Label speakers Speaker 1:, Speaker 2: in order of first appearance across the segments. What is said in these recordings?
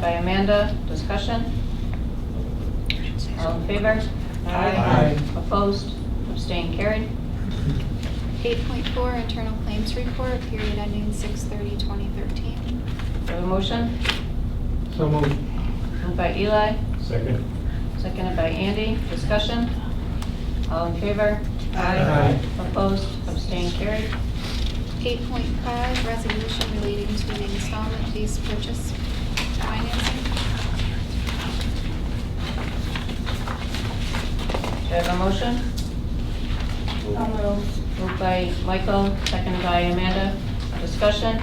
Speaker 1: by Amanda. Discussion? All in favor?
Speaker 2: Aye.
Speaker 1: Opposed? Abstained? Carried?
Speaker 3: 8.4, Internal Claims Report, period ending 6/30/2013.
Speaker 1: Do I have a motion?
Speaker 2: So moved.
Speaker 1: Moved by Eli,
Speaker 2: Second.
Speaker 1: seconded by Andy. Discussion? All in favor?
Speaker 2: Aye.
Speaker 1: Opposed? Abstained? Carried?
Speaker 3: 8.5, Resolution relating to the installment lease purchase financing.
Speaker 1: Do I have a motion? Moved by Michael, seconded by Amanda. Discussion?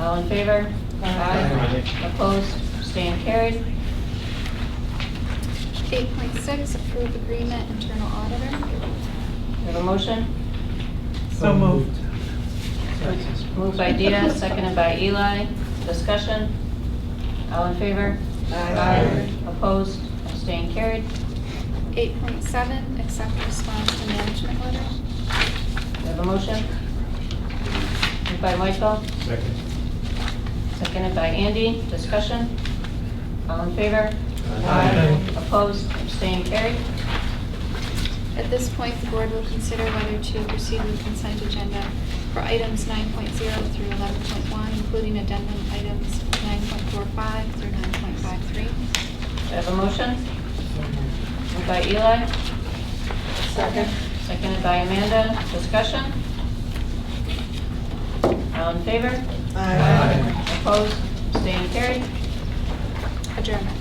Speaker 1: All in favor?
Speaker 2: Aye.
Speaker 1: Opposed? Abstained? Carried?
Speaker 3: 8.6, Approve Agreement, Internal Auditor.
Speaker 1: Do I have a motion?
Speaker 2: So moved.
Speaker 1: Moved by Dina, seconded by Eli. Discussion? All in favor?
Speaker 2: Aye.
Speaker 1: Opposed? Abstained? Carried?
Speaker 3: 8.7, Accept Response to Management Letter.
Speaker 1: Do I have a motion? Moved by Michael,
Speaker 2: Second.
Speaker 1: seconded by Andy. Discussion? All in favor?
Speaker 2: Aye.
Speaker 1: Opposed? Abstained? Carried?
Speaker 3: At this point, the board will consider whether to proceed with consent agenda for items 9.0 through 11.1, including addendum items 9.45 through 9.53.
Speaker 1: Do I have a motion? Moved by Eli,
Speaker 4: Second.
Speaker 1: seconded by Amanda. Discussion? All in favor?
Speaker 2: Aye.
Speaker 1: Opposed? Abstained? Carried?
Speaker 3: Adjournment.